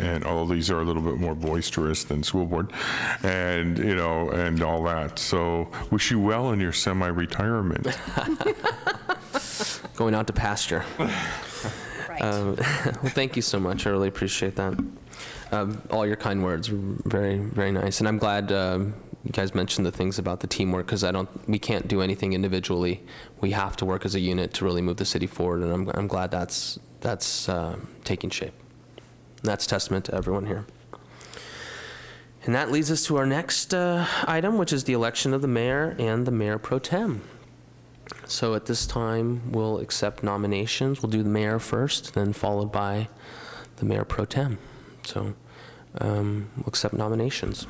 and all these are a little bit more boisterous than school board, and, you know, and all that. So wish you well in your semi-retirement. Going out to pasture. Right. Um, well, thank you so much. I really appreciate that. Um, all your kind words, were very, very nice. And I'm glad um, you guys mentioned the things about the teamwork because I don't, we can't do anything individually. We have to work as a unit to really move the city forward. And I'm, I'm glad that's that's uh, taking shape. And that's testament to everyone here. And that leads us to our next uh, item, which is the election of the mayor and the mayor pro tem. So at this time, we'll accept nominations. We'll do the mayor first, then followed by the mayor pro tem. So um, we'll accept nominations.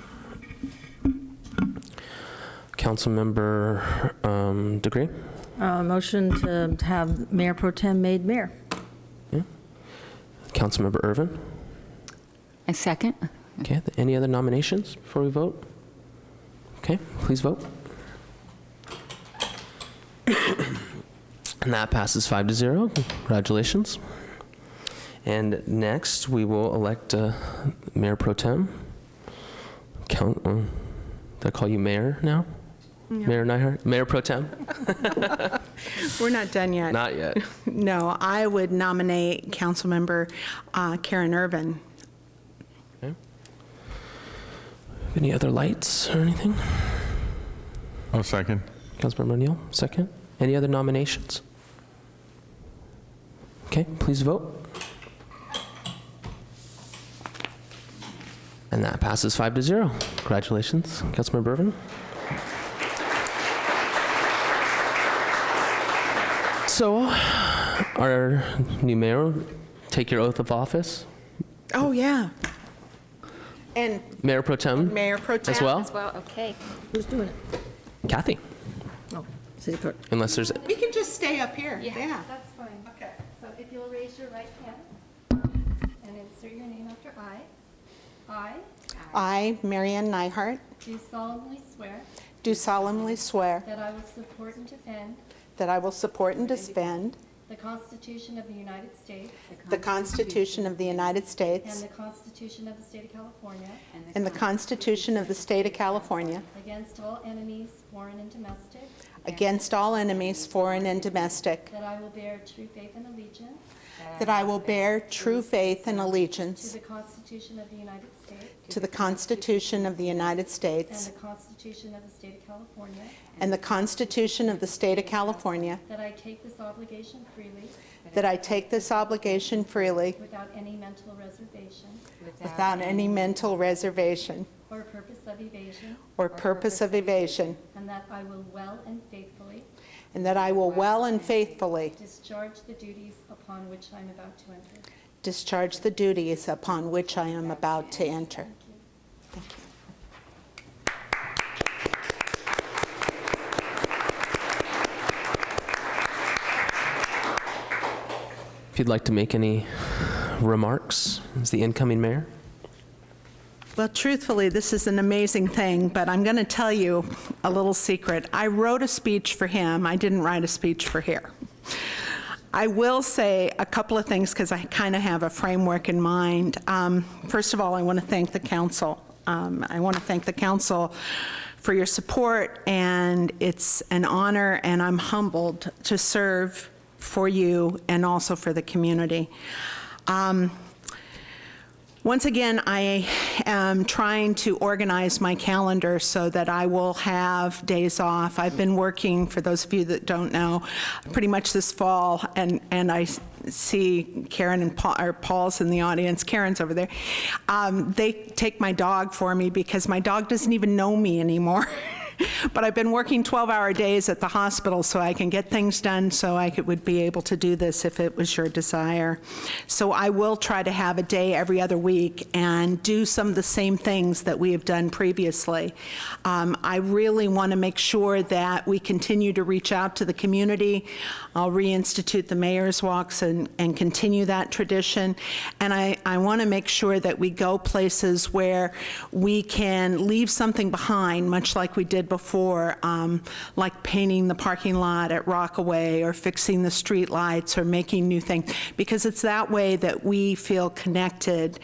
Councilmember um, Degree? Uh, Motion to have Mayor Pro Tem made mayor. Councilmember Irvin? I second. Okay, any other nominations before we vote? Okay, please vote. And that passes five to zero. Congratulations. And next, we will elect uh, Mayor Pro Tem. Count, um, did I call you mayor now? Mayor Nyhart? Mayor Pro Tem? We're not done yet. Not yet. No, I would nominate Councilmember uh, Karen Irvin. Any other lights or anything? I'll second. Councilmember O'Neill, second. Any other nominations? Okay, please vote. And that passes five to zero. Congratulations, Councilmember Irvin. So, our new mayor, take your oath of office. Oh, yeah. And Mayor Pro Tem Mayor Pro Tem. Hmm? as well. Well, okay. Who's doing it? Kathy, Oh, city clerk. unless there's We can just stay up here. Yeah. That's fine. Okay. So if you'll raise your right hand and insert your name after I. I I, Marianne Nyhart, do solemnly swear do solemnly swear that I will support and defend that I will support and defend the Constitution of the United States the Constitution of the United and States the Constitution of the State of California and the Constitution of the State of California against all enemies, foreign and domestic, against all enemies, foreign and domestic, that I will bear true faith and allegiance that I will bear true faith and to allegiance the Constitution of the United States to the Constitution of the United and States the Constitution of the State of California, and the Constitution of the State of California that I take this obligation freely That I take this obligation freely, without any mental reservation without any mental reservation or purpose of evasion, or purpose of evasion, and that I will well and faithfully and that I will well and faithfully discharge the duties upon which I'm about to enter. discharge the duties upon which I am about to enter. If you'd like to make any remarks as the incoming mayor. Well, truthfully, this is an amazing thing, but I'm going to tell you a little secret. I wrote a speech for him, I didn't write a speech for here. I will say a couple of things because I kind of have a framework in mind. Um, First of all, I want to thank the council. Um, I want to thank the council for your support, and it's an honor, and I'm humbled to serve for you and also for the community. Um, once again, I am trying to organize my calendar so that I will have days off. I've been working, for those of you that don't know, pretty much this fall, and, and I s- see Karen and Paul, or Paul's in the audience, Karen's over there. Um, They take my dog for me because my dog doesn't even know me anymore. But I've been working 12-hour days at the hospital so I can get things done, so I could, would be able to do this if it was your desire. So I will try to have a day every other week and do some of the same things that we have done previously. Um, I really want to make sure that we continue to reach out to the community. I'll reinstitute the mayor's walks and, and continue that tradition. And I, I want to make sure that we go places where we can leave something behind, much like we did before, um, like painting the parking lot at Rockaway or fixing the street lights or making new things, because it's that way that we feel connected